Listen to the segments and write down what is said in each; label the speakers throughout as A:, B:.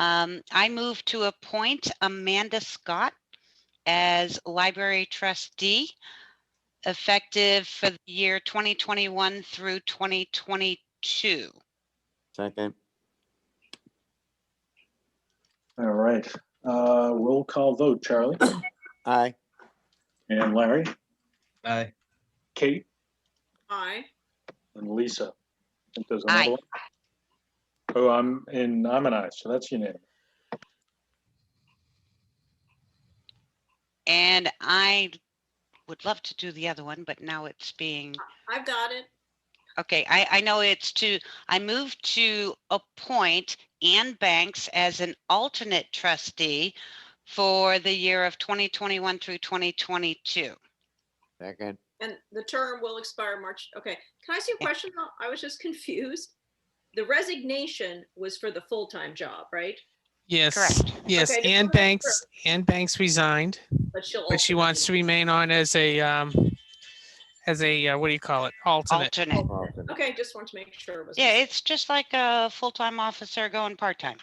A: Um, I move to appoint Amanda Scott as library trustee effective for the year 2021 through 2022.
B: Second,
C: All right, uh, roll call vote, Charlie
B: aye,
C: and Larry,
D: Aye.
C: Kate
E: Aye.
C: and Lisa. I think there's
A: Aye.
C: another one. Oh, I'm, and I'm an aye, so that's unanimous.
A: And I would love to do the other one, but now it's being,
E: I've got it.
A: okay, I, I know it's to, I move to appoint Ann Banks as an alternate trustee for the year of 2021 through 2022.
B: second,
E: And the term will expire March, okay. Can I see a question though? I was just confused. The resignation was for the full-time job, right?
F: Yes,
A: Correct.
F: yes,
E: Okay,
F: Ann
E: just wanna make sure.
F: Banks, Ann Banks resigned,
E: But she'll.
F: but she
E: also-
F: wants to remain on as a, um, as a, uh, what do you call it, alternate.
A: Alternate.
B: alternate,
E: Okay, just want to make sure. it was-
A: Yeah, it's just like a full-time officer going part-time.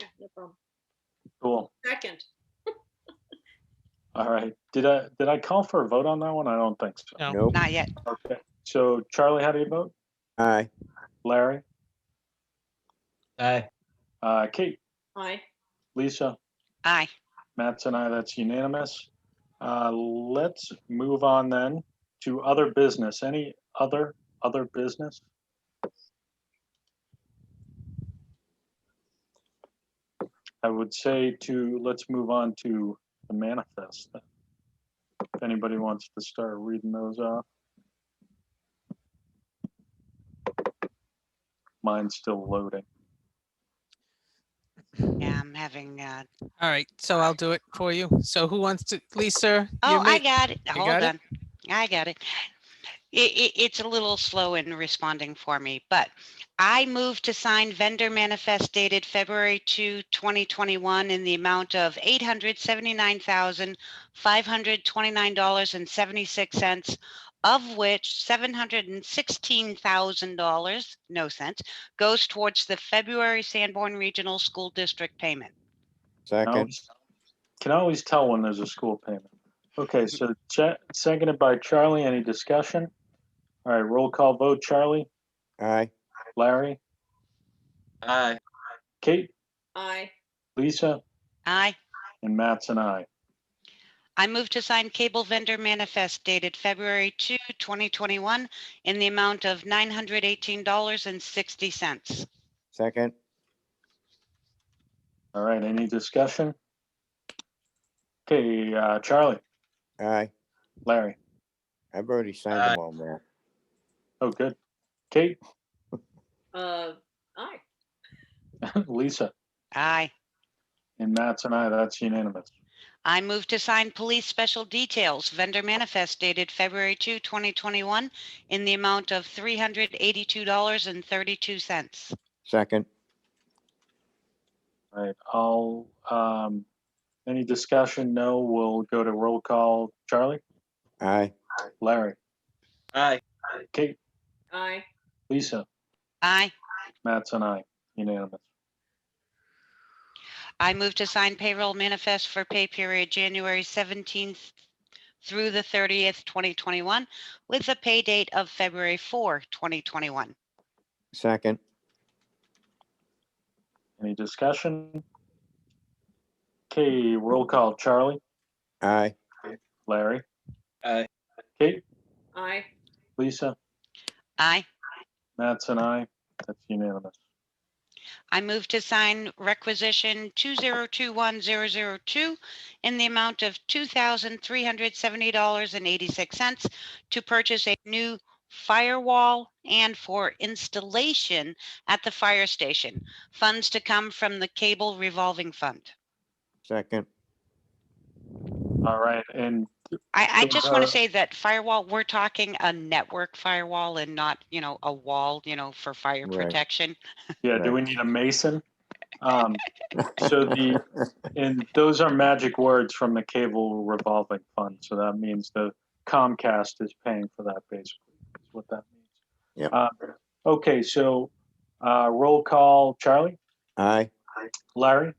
E: Yeah, no problem.
C: Cool.
E: Second,
C: All right, did I, did I call for a vote on that one? I don't think so.
F: No.
B: nope,
A: Not yet.
C: Okay, so Charlie, how do you vote?
B: aye,
C: Larry,
D: Aye.
C: uh, Kate,
E: aye.
C: Lisa?
A: Aye.
C: Matt's and I, that's unanimous. Uh, Let's move on then to other business. Any other, other business? I would say to, let's move on to the manifest. then. If anybody wants to start reading those off. Mine's still loading.
A: Yeah, I'm having, uh,
F: All right, so I'll do it for you. So who wants to, Lisa? you
A: oh, I
F: make-
A: got it. Hold
F: got it?
A: on. I got it. It, it, it's a little slow in responding for me, but I move to sign vendor manifest dated February 2, 2021 in the amount of $879,529.76, of which $716,000, no cents, goes towards the February Sanborn Regional School District payment.
C: Can
B: second,
C: always- Can always tell when there's a school payment. Okay, so cha- seconded by Charlie. Any discussion? All right, roll call vote. Charlie,
B: aye,
C: Larry,
D: Aye.
C: Kate,
E: Aye.
C: Lisa,
A: Aye.
C: and Matt's and I.
A: I move to sign cable vendor manifest dated February 2, 2021 in the amount of $918.60.
B: second,
C: All right, any discussion? Okay, uh, Charlie,
B: aye.
C: Larry.
B: I've already signed them all, Matt.
C: Oh, good. Kate,
E: Uh, aye.
C: Lisa,
A: Aye.
C: and Matt's and I. That's unanimous.
A: I move to sign police special details vendor manifest dated February 2, 2021 in the amount of $382.32.
B: Second,
C: All right, I'll, um, any discussion? No, we'll go to roll call. Charlie,
B: aye,
C: Larry,
D: Aye.
C: Kate,
E: Aye.
C: Lisa,
A: Aye.
C: Matt's and I, unanimous.
A: I move to sign payroll manifest for pay period January 17th through the 30th, 2021 with a pay date of February 4, 2021.
B: second,
C: Any discussion? Okay, roll call. Charlie,
B: aye,
C: Larry,
D: Aye.
C: Kate,
E: Aye.
C: Lisa,
A: Aye.
C: Matt's and I, that's unanimous.
A: I move to sign requisition 2021002 in the amount of $2,370.86 to purchase a new firewall and for installation at the fire station. Funds to come from the cable revolving fund.
B: second,
C: All right, and
A: I, I
C: So,
A: just want
C: uh,
A: to say that firewall, we're talking a network firewall and not, you know, a wall, you know, for fire
B: Right.
A: protection.
C: yeah, do we need a mason? Um, so the, and those are magic words from the cable revolving fund, so that means the Comcast is paying for that basically, is what that means.
B: Yep.
C: Uh, Okay, so, uh, roll call. Charlie,
B: aye,
C: Larry?